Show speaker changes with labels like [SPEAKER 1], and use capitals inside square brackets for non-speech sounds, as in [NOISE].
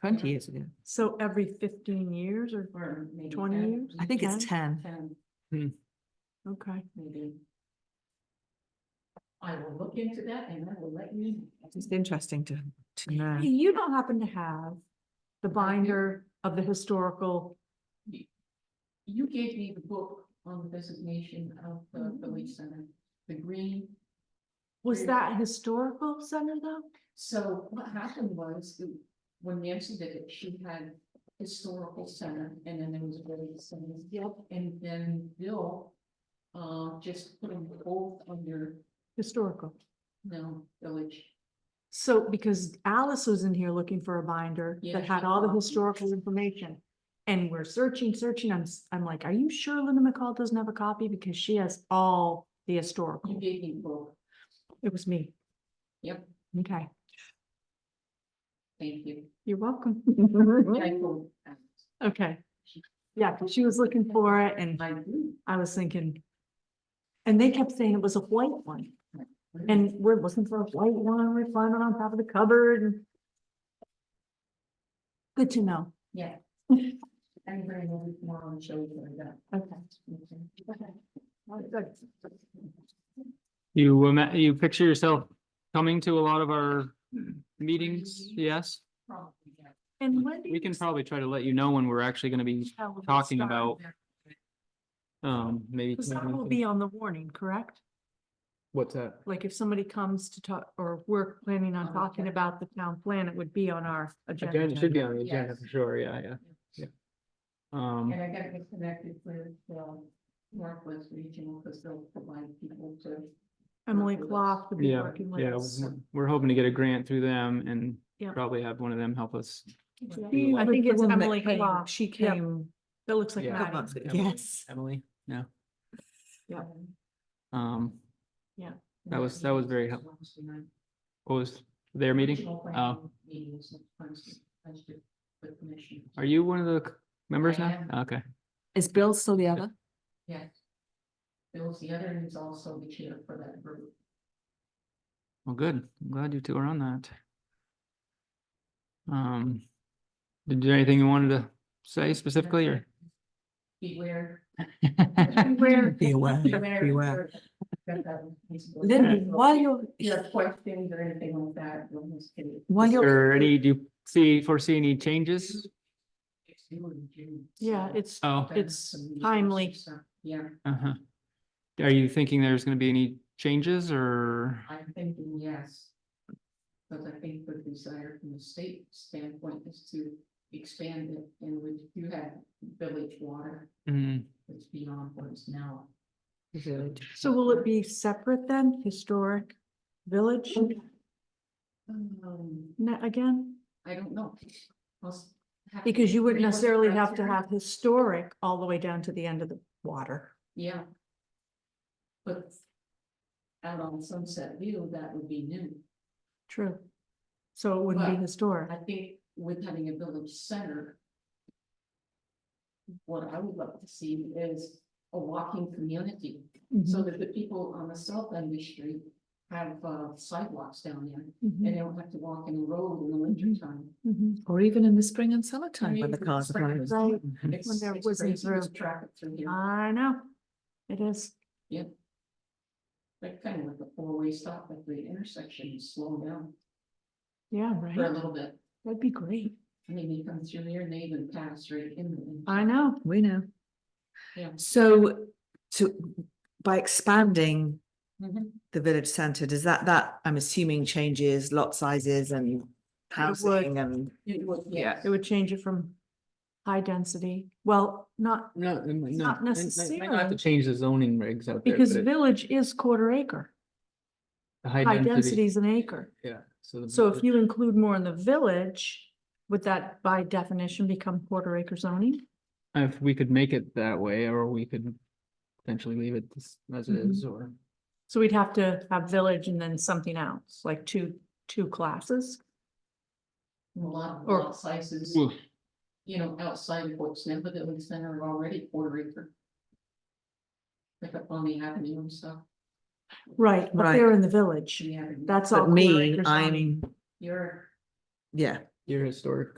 [SPEAKER 1] twenty years ago.
[SPEAKER 2] So every fifteen years or,
[SPEAKER 3] Or maybe
[SPEAKER 2] 20
[SPEAKER 3] 10,
[SPEAKER 2] years?
[SPEAKER 1] I think it's ten.
[SPEAKER 3] Ten,
[SPEAKER 2] okay,
[SPEAKER 3] maybe. I will look into that and I will let you. know.
[SPEAKER 1] It's just interesting to, to know.
[SPEAKER 2] you don't happen to have the
[SPEAKER 3] do.
[SPEAKER 2] binder of the historical,
[SPEAKER 3] You gave me the book on the designation of the village center, the green.
[SPEAKER 2] was
[SPEAKER 3] Yeah.
[SPEAKER 2] that historical center though?
[SPEAKER 3] So what happened was, the- when Nancy did it, she had historical center, and then there was village center. Yep. And then Bill, uh, just put them both under,
[SPEAKER 2] Historical.
[SPEAKER 3] no, village.
[SPEAKER 2] So because Alice was in here looking for a binder
[SPEAKER 3] Yeah,
[SPEAKER 2] that
[SPEAKER 3] she
[SPEAKER 2] had all the
[SPEAKER 3] was.
[SPEAKER 2] historical information. And we're searching, searching. I'm, s- I'm like, are you sure Linda McCall doesn't have a copy? Because she has all the
[SPEAKER 3] You
[SPEAKER 2] historical.
[SPEAKER 3] gave me both,
[SPEAKER 2] It was me.
[SPEAKER 3] Yep.
[SPEAKER 2] Okay,
[SPEAKER 3] thank you. [LAUGHS]
[SPEAKER 2] you're welcome.
[SPEAKER 3] I will, uh,
[SPEAKER 2] Okay. Yeah, 'cause she was looking for it and
[SPEAKER 3] I do.
[SPEAKER 2] I was thinking. And they kept saying it was a white one and we're looking for a white one. We find it on top of the cupboard. and- Good to know.
[SPEAKER 3] Yeah. I'm very well tomorrow and show you that.
[SPEAKER 2] Okay.
[SPEAKER 3] Okay.
[SPEAKER 4] You, ima- you picture yourself coming to a lot of our meetings, yes?
[SPEAKER 3] Probably, yeah.
[SPEAKER 2] And when do
[SPEAKER 4] We
[SPEAKER 2] you
[SPEAKER 4] can probably try to let you know when we're actually gonna be,
[SPEAKER 2] tell when we
[SPEAKER 4] talking
[SPEAKER 2] start?
[SPEAKER 4] about- um, maybe.
[SPEAKER 2] Because that will be on the warning, correct?
[SPEAKER 4] What's that?
[SPEAKER 2] Like if somebody comes to talk, or we're planning
[SPEAKER 3] On
[SPEAKER 2] on
[SPEAKER 3] the
[SPEAKER 2] talking
[SPEAKER 3] agenda.
[SPEAKER 2] about the town plan, it would be on our
[SPEAKER 4] Again, it
[SPEAKER 2] agenda.
[SPEAKER 4] should be on the agenda
[SPEAKER 3] Yes.
[SPEAKER 4] for sure, yeah, yeah, yeah. Um,
[SPEAKER 3] And I gotta get connected with, um, Northwest Regional, because they'll provide people to.
[SPEAKER 2] Emily
[SPEAKER 3] with us.
[SPEAKER 2] Clough would be
[SPEAKER 4] Yeah,
[SPEAKER 2] working with
[SPEAKER 4] yeah,
[SPEAKER 2] us.
[SPEAKER 4] we're- we're hoping to get a grant through them and
[SPEAKER 2] Yeah.
[SPEAKER 4] probably have one of them help us.
[SPEAKER 2] She- I think it's
[SPEAKER 1] The woman that
[SPEAKER 2] Emily
[SPEAKER 1] came,
[SPEAKER 2] Clough.
[SPEAKER 1] She
[SPEAKER 2] Yep.
[SPEAKER 1] came.
[SPEAKER 2] That looks like
[SPEAKER 4] Yeah.
[SPEAKER 2] Maddie.
[SPEAKER 1] Emily-
[SPEAKER 4] Emily-
[SPEAKER 1] Yes.
[SPEAKER 4] Emily, no,
[SPEAKER 2] Yeah.
[SPEAKER 3] Um,
[SPEAKER 4] um,
[SPEAKER 3] and
[SPEAKER 4] was-
[SPEAKER 3] that's
[SPEAKER 4] that was
[SPEAKER 3] the
[SPEAKER 4] very
[SPEAKER 3] first
[SPEAKER 4] help-
[SPEAKER 3] Wednesday night.
[SPEAKER 4] what was their meeting?
[SPEAKER 3] Regional planning
[SPEAKER 4] Oh.
[SPEAKER 3] meeting is next Wednesday, Wednesday, with commissioners.
[SPEAKER 4] Are you one of the c- members
[SPEAKER 3] I
[SPEAKER 4] now?
[SPEAKER 3] am.
[SPEAKER 4] Okay,
[SPEAKER 1] Is Bill still the other?
[SPEAKER 3] Yes. Bill's the other, and he's also the chair for that group.
[SPEAKER 4] well, good. I'm glad you two are on that. Um, did you, anything you wanted to say specifically or?
[SPEAKER 2] [LAUGHS]
[SPEAKER 3] Beware.
[SPEAKER 2] Where,
[SPEAKER 1] Be aware,
[SPEAKER 3] Beware. That, um, he's-
[SPEAKER 1] Lindy, while you're,
[SPEAKER 3] Yeah, questions or anything like that, we'll just get it.
[SPEAKER 1] while you're,
[SPEAKER 4] Or any, do you see, foresee any changes?
[SPEAKER 3] It's due in June,
[SPEAKER 2] yeah,
[SPEAKER 3] so um,
[SPEAKER 2] it's,
[SPEAKER 4] Oh,
[SPEAKER 3] that's
[SPEAKER 2] it's
[SPEAKER 3] some resources,
[SPEAKER 2] timely.
[SPEAKER 3] so, Yeah,
[SPEAKER 4] uh-huh. Are you thinking there's gonna be any changes or?
[SPEAKER 3] I'm thinking yes. But I think the desire from the state standpoint is to expand it and we do have village water,
[SPEAKER 4] Mm,
[SPEAKER 3] it's beyond what is now.
[SPEAKER 2] so will it be separate then, historic village
[SPEAKER 3] Mm. Um,
[SPEAKER 2] ne- again?
[SPEAKER 3] I don't know. I'll s- have to
[SPEAKER 2] Because you wouldn't
[SPEAKER 3] agree with
[SPEAKER 2] necessarily have to
[SPEAKER 3] Rosemary.
[SPEAKER 2] have historic all the way down to the end of the water.
[SPEAKER 3] Yeah. But out on Sunset View, that would be new.
[SPEAKER 2] True. So it wouldn't be
[SPEAKER 3] Well,
[SPEAKER 2] historic.
[SPEAKER 3] I think with having a village center. What I would love to see is a walking community,
[SPEAKER 2] Mm-hmm,
[SPEAKER 3] so that the people on the south end of the street have uh, sidewalks down there.
[SPEAKER 2] mm-hmm,
[SPEAKER 3] And they don't have to walk in the road in the winter time.
[SPEAKER 1] or even in the spring and
[SPEAKER 3] I
[SPEAKER 1] summertime
[SPEAKER 3] mean,
[SPEAKER 1] when the
[SPEAKER 3] it's
[SPEAKER 1] cars are Mm-hmm.
[SPEAKER 3] spring and
[SPEAKER 1] going.
[SPEAKER 2] Right,
[SPEAKER 1] Mhm.
[SPEAKER 3] It's
[SPEAKER 2] When there
[SPEAKER 3] it's
[SPEAKER 2] wasn't Ah.
[SPEAKER 3] crazy, there's
[SPEAKER 2] room.
[SPEAKER 3] Traffic through here,
[SPEAKER 2] I know. It is.
[SPEAKER 3] like kind of like a four-way stop at the intersection, you slow down
[SPEAKER 2] Yeah,
[SPEAKER 3] for a
[SPEAKER 2] right.
[SPEAKER 3] little bit.
[SPEAKER 2] That'd be great.
[SPEAKER 3] I mean, you come through there and they even pass right in.
[SPEAKER 2] I know.
[SPEAKER 1] We know.
[SPEAKER 3] Yeah.
[SPEAKER 1] So to, by expanding
[SPEAKER 3] Mhm.
[SPEAKER 1] the village centre, does that, that, I'm assuming changes lot sizes and housing and.
[SPEAKER 3] It would, yes.
[SPEAKER 2] It would change it from high density. Well, not,
[SPEAKER 4] No, it might
[SPEAKER 2] It's
[SPEAKER 4] not
[SPEAKER 2] not
[SPEAKER 4] Might- might- might not have
[SPEAKER 2] necessarily.
[SPEAKER 4] to change the zoning regs out there.
[SPEAKER 2] because
[SPEAKER 4] but it-
[SPEAKER 2] village is quarter acre.
[SPEAKER 4] the
[SPEAKER 2] High density is an acre.
[SPEAKER 4] Yeah. the-
[SPEAKER 2] So if you include more in the village, would that by definition become quarter acre zoning?
[SPEAKER 4] If we could make it that way, or we could potentially leave it as- as it
[SPEAKER 2] Mhm.
[SPEAKER 4] is, or.
[SPEAKER 2] So we'd have to have village and then something else, like two, two classes.
[SPEAKER 3] A lot, of
[SPEAKER 2] Or-
[SPEAKER 3] lot sizes,
[SPEAKER 4] Oof.
[SPEAKER 3] you know, outside of what's now the village center are already quarter acre. Like up on the avenue and stuff,
[SPEAKER 2] Right, but
[SPEAKER 1] Right.
[SPEAKER 2] they're in the village.
[SPEAKER 3] the avenue,
[SPEAKER 2] That's all.
[SPEAKER 1] But
[SPEAKER 2] quarter
[SPEAKER 1] me,
[SPEAKER 2] acre zoning.
[SPEAKER 1] I'm,
[SPEAKER 3] you're.
[SPEAKER 1] yeah.
[SPEAKER 4] Your historic